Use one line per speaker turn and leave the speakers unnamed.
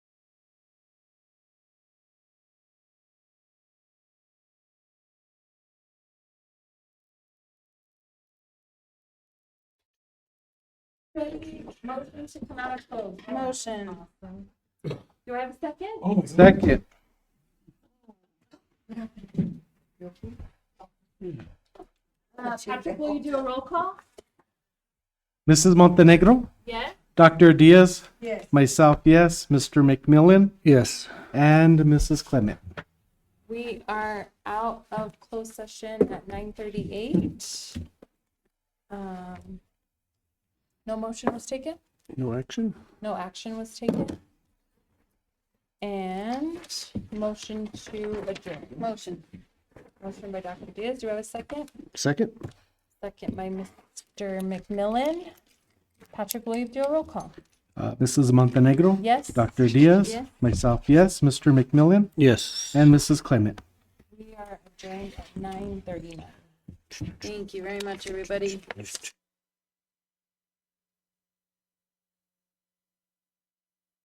Motion to come out of closed. Motion. Do I have a second?
Oh my God.
Second.
Uh, Patrick, will you do a roll call?
Mrs. Montenegro,
Yes?
Dr. Diaz,
Yes.
myself, yes, Mr. McMillan,
Yes.
and Mrs. Clement.
We are out of closed session at nine thirty-eight. Um, no motion was taken,
No action?
no action was taken. And motion to adjourn. Motion. Motion by Dr. Diaz. Do I have a second?
Second.
Second by Mr. McMillan. Patrick, will you do a roll call?
Uh, Mrs. Montenegro?
Yes.
Dr. Diaz,
Yes.
myself, yes, Mr. McMillan,
Yes.
and Mrs. Clement.
We are adjourned at nine thirty-nine. Thank you very much, everybody.